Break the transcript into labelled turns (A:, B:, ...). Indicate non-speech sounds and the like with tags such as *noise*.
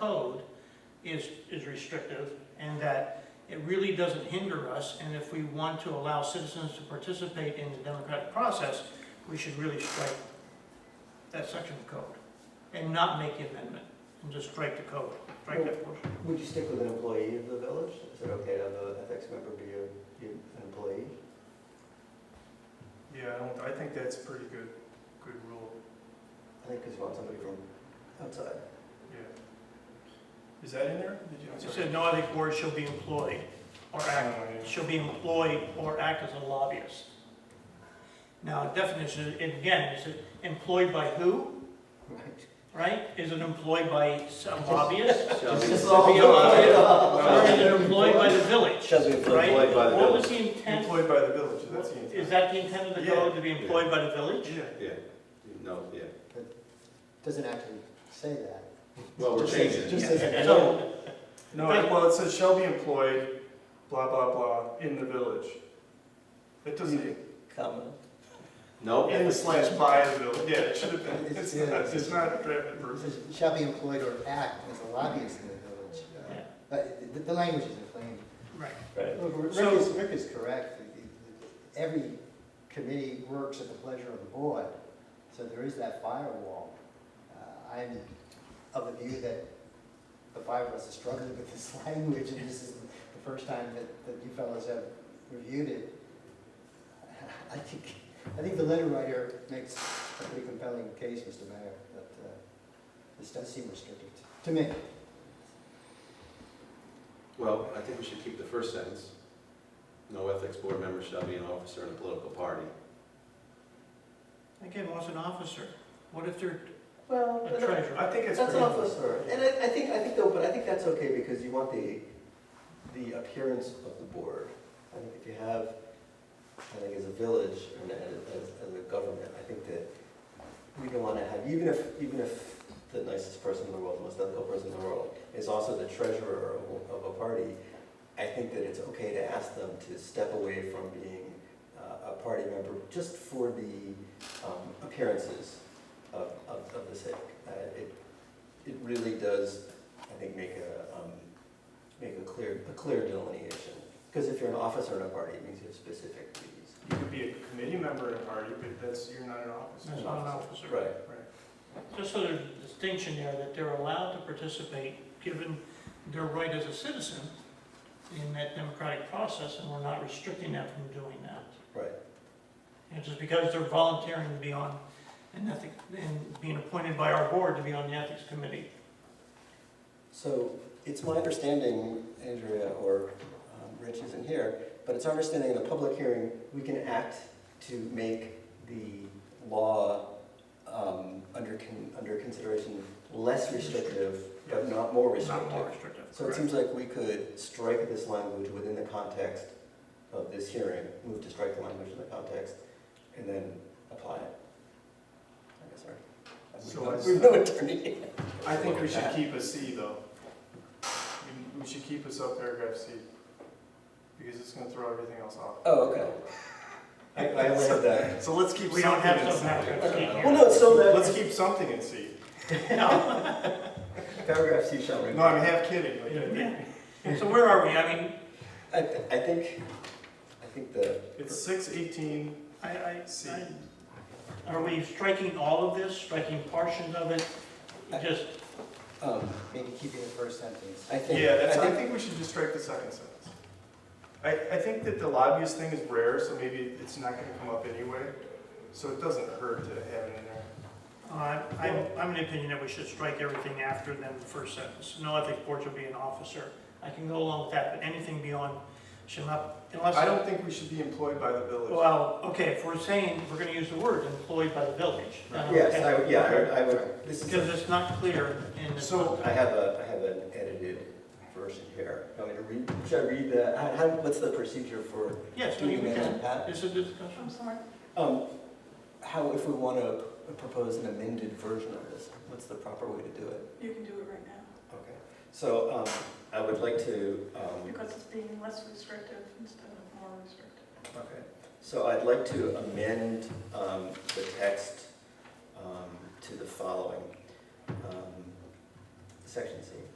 A: code is, is restrictive, and that it really doesn't hinder us, and if we want to allow citizens to participate in the democratic process, we should really strike that section of code, and not make the amendment, and just strike the code, strike that portion.
B: Would you stick with an employee of the village? Is it okay to have an ethics member be a- be an employee?
C: Yeah, I don't, I think that's a pretty good, good rule,
B: I think because you want somebody from outside. *laughs*
C: yeah. Is that in there? Did you- I'm
A: It
C: sorry.
A: said, no other board shall be employed or act
C: Oh, yeah.
A: shall be employed or act as a lobbyist. Now, definition, and again, is it employed by who,
B: Right.
A: right? Is it employed by some lobbyist?
D: Shall be
B: Just
A: Or
B: all-
A: is it employed by the village,
B: Shall be employed.
A: right?
D: by the
A: What was the intent,
C: Employed by the village, that's the
A: is
C: intent.
A: that the intent of the code, to be employed by the village?
C: Yeah,
D: Yeah, no, yeah.
B: Doesn't actually say that.
D: Well, Oh, we're
B: Just says-
D: changing it.
B: Just says employed.
A: So,
C: no, well, it says shall be employed, blah, blah, blah, in the village. It doesn't,
B: Comma.
D: No,
C: in the slash by the village, yeah, it should have been,
B: It's-
C: it's
B: yeah.
C: not, it's not drafted
B: It
C: versus.
B: says, Shall be employed or act as a lobbyist in the village. Uh,
A: yeah,
B: But the, the language isn't plain.
A: right,
B: Look, Rick
A: So-
B: is, Rick is correct. The- the- Every committee works at the pleasure of the board, so there is that firewall. Uh, I'm of the view that the five of us are struggling with this *laughs* language, and this is the first time that, that you fellows have reviewed it. I think, I think the letter writer makes a pretty compelling case, Mr. Mayor, that uh, this does seem restrictive to- to me.
D: well, I think we should keep the first sentence. No ethics board member shall be an officer in a political party.
A: again, what's an officer? What if they're
B: Well,
A: a treasurer?
C: I think it's
B: That's
C: pretty.
B: an awful story, and I, I think, I think though, but I think that's okay because you want the, the appearance of the board. I think if you have, I think as a village and as, as a government, I think that we don't wanna have, even if, even if the nicest person in the world, the most ethical person in the world is also the treasurer of, of a party, I think that it's okay to ask them to step away from being uh, a party member just for the um, appearances of, of, of the sake. Uh, It, it really does, I think, make a, um, make a clear, a clear delineation. Because if you're an officer in a party, it means you have specific duties.
C: You could be a committee member in a party, but that's, you're not an officer.
A: That's not an officer.
B: Right.
C: Right.
A: Just sort of distinction there, that they're allowed to participate, given their right as a citizen in that democratic process, and we're not restricting them from doing that.
B: Right.
A: And just because they're volunteering to be on an ethic, and being appointed by our board to be on the ethics committee.
B: So it's my understanding, Andrea, or um, Rich isn't here, but it's our understanding in a public hearing, we can act to make the law um, under, con- under consideration less restrictive, but not more
A: Not
B: restrictive.
A: more restrictive.
B: So it seems like we could strike this language within the context of this hearing, move to strike the language in the context, and then apply it. I guess,
C: So
B: sorry.
C: I-
B: We've no attorney.
C: I think we should
B: Look at
C: keep a C though. We- We should keep a subparagraph C, because it's gonna throw everything else off.
B: Oh, okay. I, I only have that.
C: So let's keep
A: We don't
C: something
A: have
C: in
A: some
C: C.
A: paragraph.
B: Well, no, it's so
C: Let's
B: that
C: keep something in C.
B: paragraph C shall remain.
C: No, I'm half kidding, like,
A: Yeah. So where are we? I mean,
B: I, th- I think, I think the,
C: it's six eighteen,
A: I, I,
C: C.
A: I, are we striking all of this, striking portions of it? Just,
B: um,
E: Maybe keeping the first sentence.
B: I think.
C: yeah, that's,
B: I
C: I
B: think-
C: think we should just strike the second sentence. I, I think that the lobbyist thing is rare, so maybe it's not gonna come up anyway, so it doesn't hurt to have it in there.
A: uh, I'm, I'm of the opinion that we should strike everything after then the first sentence. No ethics board shall be an officer. I can go along with that, but anything beyond shall not, unless.
C: I don't think we should be employed by the village.
A: Well, okay, if we're saying, we're gonna use the word employed by the village. then
B: Yes,
A: okay.
B: I, would- yeah, I would- I would, this is. a-
A: Because it's not clear in the.
C: So-
B: I have a, I have an edited version here. You want me to read, should I read the, how, how- what's the procedure for
A: Yes, we
B: doing
A: we
B: amendment,
A: can,
B: Pat?
A: is it discussion?
E: sorry?
B: Um, how, if we want to propose an amended version of this, what's the proper way to do it?
F: You can do it right now,
B: Okay, so, um, I would like to, um,
F: because it's being less restrictive instead of more restrictive.
B: okay, so I'd like to amend, um, the text, um, to the following, um, section C.